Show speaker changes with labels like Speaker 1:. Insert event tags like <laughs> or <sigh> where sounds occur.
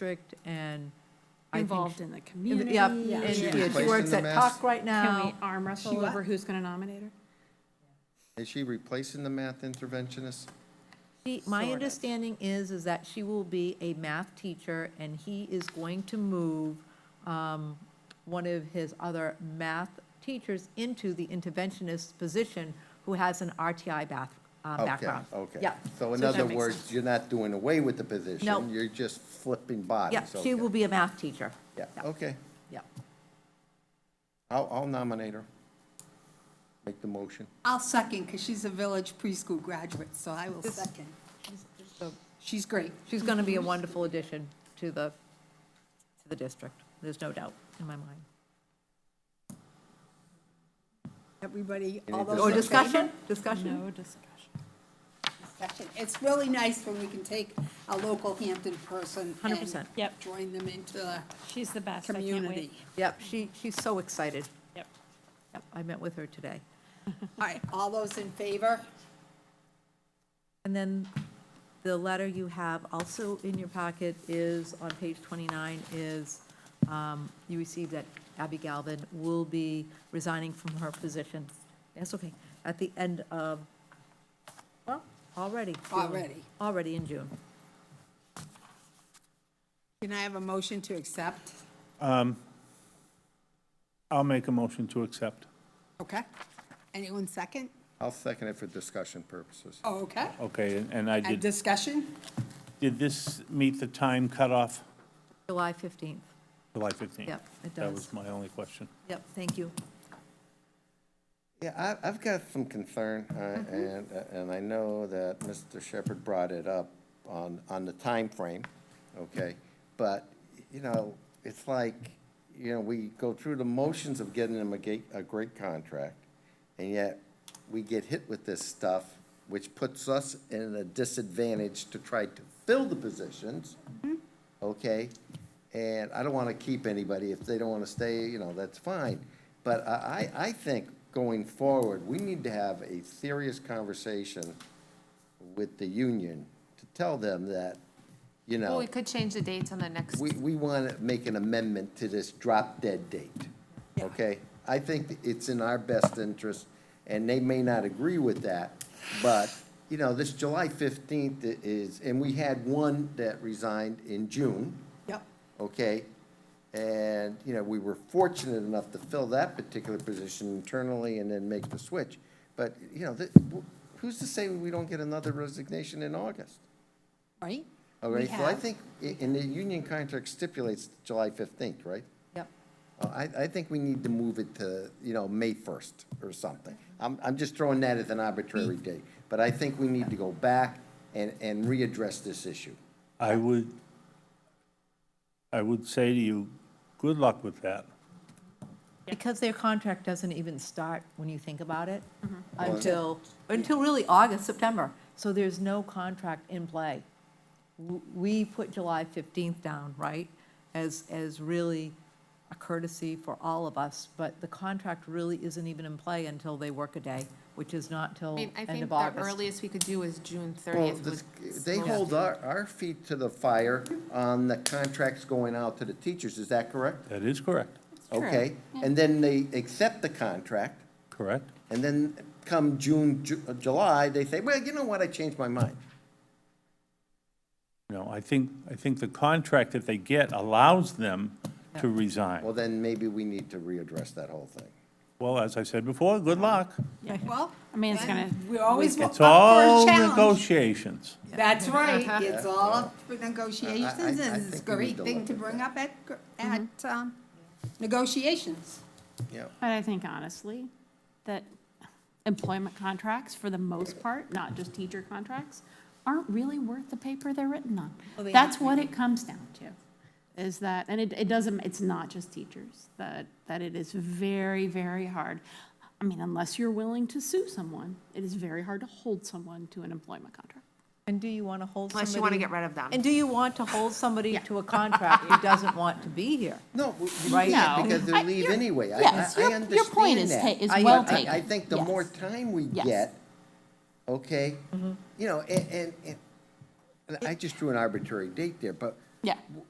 Speaker 1: district and. I think
Speaker 2: involved in the
Speaker 1: she-
Speaker 2: community.
Speaker 1: Yep, and
Speaker 3: She
Speaker 2: um,
Speaker 3: was
Speaker 1: yeah, she
Speaker 3: placed
Speaker 1: works
Speaker 3: in
Speaker 1: at
Speaker 3: the
Speaker 1: Tuck
Speaker 3: mass-
Speaker 1: right
Speaker 2: Can we
Speaker 1: now.
Speaker 2: arm
Speaker 1: She
Speaker 2: wrestle
Speaker 1: what?
Speaker 2: over who's going to nominate her?
Speaker 3: Is she replacing the math interventionist?
Speaker 1: She- My
Speaker 2: Sort of.
Speaker 1: understanding is, is that she will be a math teacher and he is going to move um, one of his other math teachers into the interventionist position who has an RTI bath, uh,
Speaker 3: Okay,
Speaker 1: background.
Speaker 3: Okay.
Speaker 1: Yeah.
Speaker 3: So in
Speaker 1: that
Speaker 3: other
Speaker 1: makes
Speaker 3: words, you're not doing away with the position.
Speaker 1: No.
Speaker 3: You're just flipping bodies.
Speaker 1: Yeah, she
Speaker 3: okay.
Speaker 1: will be a math teacher.
Speaker 3: Yeah, okay.
Speaker 1: Yeah.
Speaker 3: I'll, I'll nominate her. Make the motion.
Speaker 4: I'll second, because she's a village preschool graduate, so I will second. She's great.
Speaker 1: She's going to be a wonderful addition to the, to the district. There's no doubt in my mind.
Speaker 4: Everybody,
Speaker 3: Any
Speaker 4: all those.
Speaker 1: Or
Speaker 4: in
Speaker 1: discussion, discussion?
Speaker 2: No discussion.
Speaker 4: favor? Discussion. It's really nice when we can take a local Hampton person.
Speaker 1: 100%.
Speaker 4: and
Speaker 2: Yep.
Speaker 4: Join them into the
Speaker 2: She's the best. I can't wait.
Speaker 4: community.
Speaker 1: Yep, she, she's so excited.
Speaker 2: Yep.
Speaker 1: Yep, I met with her today.
Speaker 4: All right, all those in favor?
Speaker 1: And then the letter you have also in your packet is, on page 29, is um, you received that Abby Galvin will be resigning from her position. That's okay, at the end of, well, already. June.
Speaker 4: Already.
Speaker 1: Already in June.
Speaker 4: Can I have a motion to accept?
Speaker 5: I'll make a motion to accept.
Speaker 4: Okay. Anyone second?
Speaker 3: I'll second it for discussion purposes.
Speaker 4: Oh, okay.
Speaker 5: Okay, and- and I
Speaker 4: And
Speaker 5: did,
Speaker 4: discussion?
Speaker 5: did this meet the time cutoff,
Speaker 1: July 15th.
Speaker 5: July 15th?
Speaker 1: Yep, it
Speaker 5: That
Speaker 1: does.
Speaker 5: was my only question.
Speaker 1: Yep, thank you.
Speaker 3: Yeah, I, I've got some concern, uh, and, and I know that Mr. Shepherd brought it up on, on the time frame, okay? But, you know, it's like, you know, we go through the motions of getting them a gate, a great contract, and yet we get hit with this stuff, which puts us in a disadvantage to try to fill the positions, okay? And I don't want to keep anybody, if they don't want to stay, you know, that's fine. But I, I, I think going forward, we need to have a serious conversation with the union to tell them that, you
Speaker 6: Well,
Speaker 3: know,
Speaker 6: we could change the dates on the next,
Speaker 3: we, we want to make an amendment to this drop dead date, okay? I think it's in our best interest, and they may not agree with that, but, you know, this July fifteenth is, and we had one that resigned in June
Speaker 4: Yep.
Speaker 3: okay? And, you know, we were fortunate enough to fill that particular position internally and then make the switch. But, you know, that, who's to say we don't get another resignation in August?
Speaker 4: Right?
Speaker 3: All
Speaker 4: We
Speaker 3: right, so I
Speaker 4: have.
Speaker 3: think, i- and the union contract stipulates July fifteenth, right?
Speaker 1: Yep.
Speaker 3: Uh, I, I think we need to move it to, you know, May first or something. I'm, I'm just throwing that as an arbitrary date, but I think we need to go back and, and readdress this issue.
Speaker 5: I would, I would say to you, good luck with that.
Speaker 1: Because their contract doesn't even start, when you think about it,
Speaker 6: Mm-hmm.
Speaker 1: until, until really August, September. So there's no contract in play. W- We put July 15th down, right, as, as really a courtesy for all of us, but the contract really isn't even in play until they work a day, which is not till
Speaker 6: I mean, I
Speaker 1: end
Speaker 6: think
Speaker 1: of
Speaker 6: the
Speaker 1: August.
Speaker 6: earliest we could do is June
Speaker 3: Well,
Speaker 6: thirtieth
Speaker 3: this-
Speaker 6: with.
Speaker 3: They
Speaker 6: most-
Speaker 3: hold our, our feet to the fire on the contracts going out to the teachers, is that correct?
Speaker 5: That is correct,
Speaker 3: Okay, and then they accept the contract,
Speaker 5: correct?
Speaker 3: and then come June, Ju- uh, July, they say, well, you know what, I changed my mind.
Speaker 5: No, I think, I think the contract that they get allows them to
Speaker 3: Well,
Speaker 5: resign.
Speaker 3: then maybe we need to readdress that whole thing.
Speaker 5: Well, as I said before, good luck.
Speaker 4: Well.
Speaker 2: I mean, it's
Speaker 4: then
Speaker 2: gonna-
Speaker 4: We're always up
Speaker 5: It's
Speaker 4: for a
Speaker 5: all
Speaker 4: challenge.
Speaker 5: negotiations.
Speaker 3: <laughs>
Speaker 4: That's right, it's all up for negotiations,
Speaker 3: Uh-huh. I- I- I
Speaker 4: and it's a
Speaker 3: think we need
Speaker 4: great
Speaker 3: to
Speaker 4: thing
Speaker 3: look
Speaker 4: to
Speaker 3: at
Speaker 4: bring up at, gr- at um, negotiations.
Speaker 3: Yeah.
Speaker 2: But I think honestly, that employment contracts, for the most part, not just teacher contracts, aren't really worth the paper they're written on. That's what it comes down to, is that, and it, it doesn't, it's not just teachers, that, that it is very, very hard. I mean, unless you're willing to sue someone, it is very hard to hold someone to an employment contract.
Speaker 1: And do you want to hold somebody?
Speaker 6: Unless you wanna get rid of them.
Speaker 1: And do you want to hold somebody to a contract who doesn't want to be here?
Speaker 3: No, we- we
Speaker 1: Right.
Speaker 3: can't,
Speaker 2: No.
Speaker 3: because they
Speaker 2: I-
Speaker 3: leave
Speaker 2: your-
Speaker 3: anyway. I- I-
Speaker 2: yes,
Speaker 3: I
Speaker 2: your- your point
Speaker 3: understand
Speaker 2: is
Speaker 3: that.
Speaker 2: ta- is
Speaker 3: I-
Speaker 2: well
Speaker 3: I- I
Speaker 2: taken.
Speaker 3: think the more
Speaker 2: Yes.
Speaker 3: time we
Speaker 2: Yes. Mm-hmm.
Speaker 3: get, okay, you know, and, and, and I just drew an arbitrary date there, but
Speaker 2: Yeah.
Speaker 3: w-